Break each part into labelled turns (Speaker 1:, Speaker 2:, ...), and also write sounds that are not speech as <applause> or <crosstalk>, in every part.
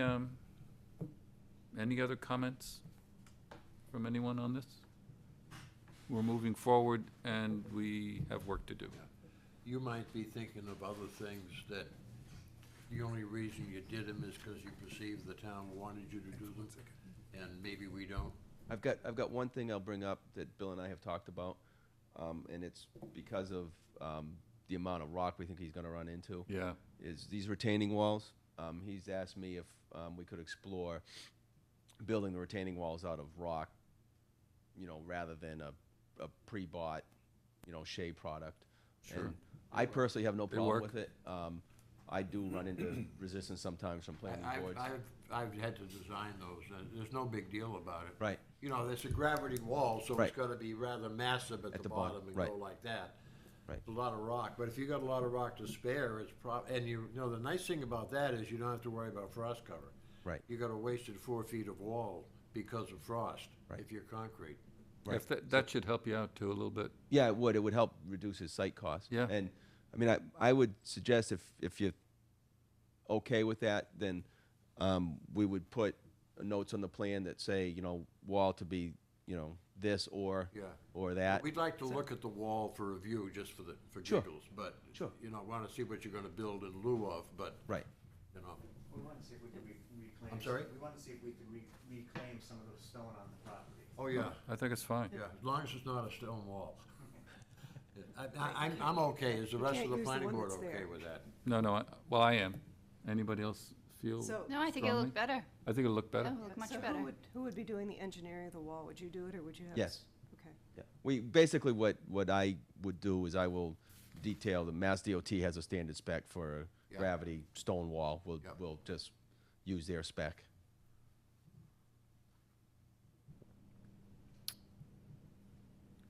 Speaker 1: Um, Any other comments from anyone on this? We're moving forward, and we have work to do.
Speaker 2: You might be thinking of other things that the only reason you did them is because you perceived the town wanted you to do them, and maybe we don't.
Speaker 3: I've got I've got one thing I'll bring up that Bill and I have talked about, um, and it's because of um, the amount of rock we think he's going to run into.
Speaker 1: Yeah,
Speaker 3: Is these retaining walls? Um, he's asked me if um, we could explore building the retaining walls out of rock, you know, rather than a, a pre-bought, you know, shea product.
Speaker 1: Sure.
Speaker 3: And I personally have no
Speaker 1: They
Speaker 3: problem
Speaker 1: work.
Speaker 3: with it. Um, I do run into resistance sometimes from planning
Speaker 2: I- I've,
Speaker 3: boards.
Speaker 2: I've, I've had to design those, and there's no big deal about it.
Speaker 3: Right.
Speaker 2: You know, it's a gravity wall, so
Speaker 3: Right.
Speaker 2: it's gotta be rather massive at the bottom and
Speaker 3: right.
Speaker 2: go like that.
Speaker 3: Right.
Speaker 2: It's A lot of rock, but if you got a lot of rock to spare, it's prob, and you, you know, the nice thing about that is you don't have to worry about frost cover.
Speaker 3: Right.
Speaker 2: You got a wasted four feet of wall because of frost.
Speaker 3: Right.
Speaker 2: If you're concrete.
Speaker 1: if that, that should help you out too a little bit.
Speaker 3: Yeah, it would. It would help reduce his site cost.
Speaker 1: Yeah.
Speaker 3: And I mean, I, I would suggest if, if you're okay with that, then um, we would put notes on the plan that say, you know, wall to be, you know, this or
Speaker 2: Yeah.
Speaker 3: or that.
Speaker 2: We'd like to look at the wall for review, just for the, for
Speaker 3: Sure.
Speaker 2: giggles, but,
Speaker 3: Sure.
Speaker 2: you know, wanna see what you're gonna build in lieu of, but,
Speaker 3: right.
Speaker 2: you know,
Speaker 4: We wanted to see if we could re- reclaim.
Speaker 2: I'm sorry?
Speaker 4: We wanted to see if we could re- reclaim some of the stone on the property.
Speaker 2: oh, yeah.
Speaker 1: I think it's fine.
Speaker 2: Yeah, as long as it's not a stone
Speaker 5: <laughs>
Speaker 2: wall. I, I, I'm, I'm okay, is the rest
Speaker 5: can't
Speaker 2: of the
Speaker 5: use the
Speaker 2: planning
Speaker 5: one
Speaker 2: board
Speaker 5: that's
Speaker 2: okay
Speaker 5: there.
Speaker 2: with that?
Speaker 1: No, no, I- well, I am. Anybody else feel?
Speaker 5: So-
Speaker 6: No, I think it'll
Speaker 1: Strongly?
Speaker 6: look better. Oh.
Speaker 1: I think it'll look better.
Speaker 6: It'll look much
Speaker 5: So
Speaker 6: better.
Speaker 5: who would, who would be doing the engineering of the wall? Would you do it, or would you have?
Speaker 3: Yes.
Speaker 5: Okay.
Speaker 3: Yeah. We basically what what I would do is I will detail the Mass DOT has a standard spec for
Speaker 2: Yeah.
Speaker 3: gravity stone wall. We'll
Speaker 2: Yep.
Speaker 3: we'll just use their spec.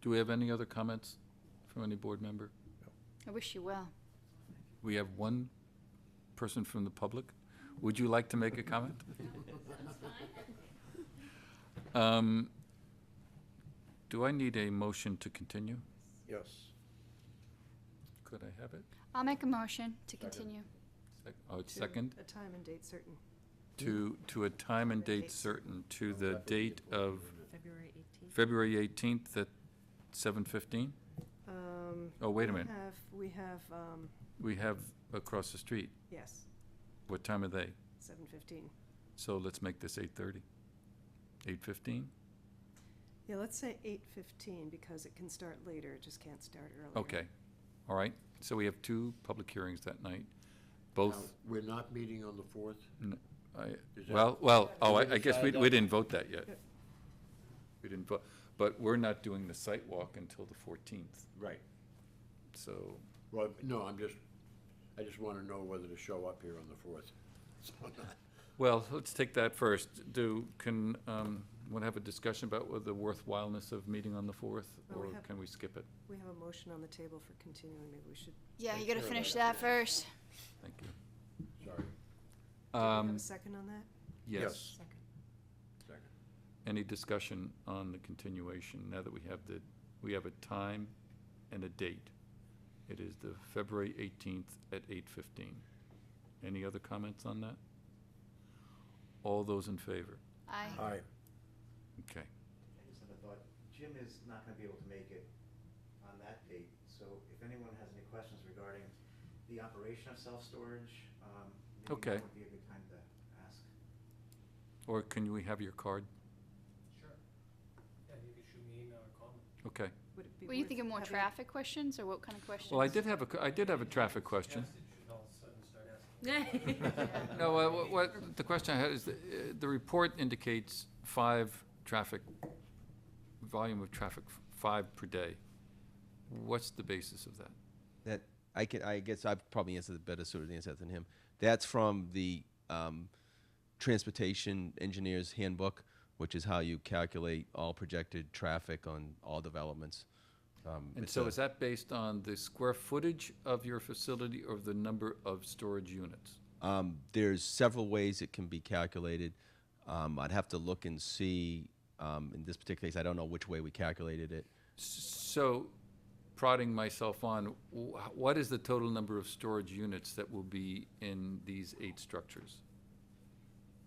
Speaker 1: Do we have any other comments from any board member?
Speaker 6: I wish you well.
Speaker 1: We have one person from the public. Would you like to make a comment? Um, Do I need a motion to continue?
Speaker 2: Yes.
Speaker 1: Could I have it?
Speaker 6: I'll make a motion to continue.
Speaker 1: Sec- Oh, it's
Speaker 5: To
Speaker 1: second,
Speaker 5: A time and date certain.
Speaker 1: to, to a time and date certain, to the date of
Speaker 7: February 18th.
Speaker 1: February 18th at 7:15?
Speaker 5: Um,
Speaker 1: Oh, wait a
Speaker 5: we
Speaker 1: minute,
Speaker 5: have- We have, um,
Speaker 1: we have across the street.
Speaker 5: yes,
Speaker 1: What time are they?
Speaker 5: seven fifteen.
Speaker 1: So let's make this 8:30. 8:15?
Speaker 5: Yeah, let's say eight fifteen, because it can start later, it just can't start earlier.
Speaker 1: Okay, all right. So we have two public hearings that night, both,
Speaker 2: We're not meeting on the fourth?
Speaker 1: n- I-
Speaker 2: Is that-
Speaker 1: well, well, oh,
Speaker 2: Did we
Speaker 1: I I guess we
Speaker 2: decide
Speaker 1: we
Speaker 2: that?
Speaker 1: didn't vote that yet.
Speaker 5: Yeah.
Speaker 1: We didn't vote, but we're not doing the site walk until the 14th,
Speaker 2: Right.
Speaker 1: so.
Speaker 2: Well, no, I'm just, I just wanna know whether to show up here on the fourth. <laughs>
Speaker 1: Well, let's take that first. Do, can, um, want to have a discussion about what the worthwhileness of meeting on the fourth?
Speaker 5: Well,
Speaker 1: Or
Speaker 5: we have-
Speaker 1: can we skip it?
Speaker 5: We have a motion on the table for continuing, maybe we should, do
Speaker 6: Yeah, you
Speaker 2: Take
Speaker 6: gotta
Speaker 2: care of
Speaker 6: finish
Speaker 2: that.
Speaker 6: that first.
Speaker 1: Thank you.
Speaker 2: Sorry.
Speaker 5: we have
Speaker 1: Um,
Speaker 5: a second on that?
Speaker 1: Yes.
Speaker 7: Second.
Speaker 2: Second.
Speaker 1: Any discussion on the continuation now that we have the, we have a time and a date? It is the February 18th at 8:15. Any other comments on that? All those in favor?
Speaker 6: I,
Speaker 2: Aye.
Speaker 1: Okay.
Speaker 4: I just had a thought, Jim is not gonna be able to make it on that date, so if anyone has any questions regarding the operation of self-storage, um,
Speaker 1: Okay.
Speaker 4: maybe now would be a good time to ask.
Speaker 1: Or can we have your card?
Speaker 8: Sure. Yeah, you can shoot me an email or call me.
Speaker 1: Okay.
Speaker 5: Would it be
Speaker 6: were you
Speaker 5: worth
Speaker 6: thinking more
Speaker 5: having-
Speaker 6: traffic questions or what kind of questions?
Speaker 1: Well, I did have a, I did have a traffic question.
Speaker 8: Yes, you should all of a sudden start asking.
Speaker 1: No, uh, wha- what, the question I had is, the, uh, the report indicates five traffic, volume of traffic, f- five per day. What's the basis of that?
Speaker 3: That I can, I guess I probably answer the better suited answer than him. That's from the um, Transportation Engineers Handbook, which is how you calculate all projected traffic on all developments. Um,
Speaker 1: And
Speaker 3: it's
Speaker 1: so
Speaker 3: a-
Speaker 1: is that based on the square footage of your facility or the number of storage units?
Speaker 3: Um, there's several ways it can be calculated. Um, I'd have to look and see. Um, in this particular case, I don't know which way we calculated it.
Speaker 1: So prodding myself on, wh- what is the total number of storage units that will be in these eight structures?